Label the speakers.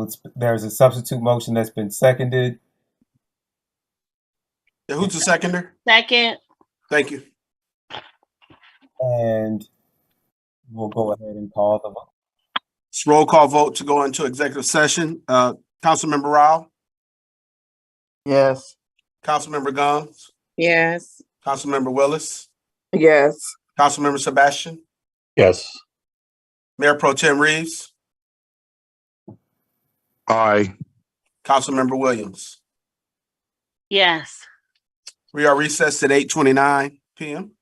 Speaker 1: It's, there's a substitute motion that's been seconded.
Speaker 2: Yeah, who's the seconder?
Speaker 3: Second,
Speaker 2: Thank you.
Speaker 1: And we'll go ahead and call the vote.
Speaker 2: It's roll call vote to go into executive session. Uh, Councilmember Rao,
Speaker 4: Yes.
Speaker 2: Councilmember Gomes,
Speaker 5: Yes.
Speaker 2: Councilmember Willis,
Speaker 5: Yes.
Speaker 2: Councilmember Sebastian,
Speaker 6: Yes.
Speaker 2: Mayor Pro Tem Reeves,
Speaker 6: Aye.
Speaker 2: Councilmember Williams.
Speaker 3: yes.
Speaker 2: We are recessed at eight twenty-nine PM.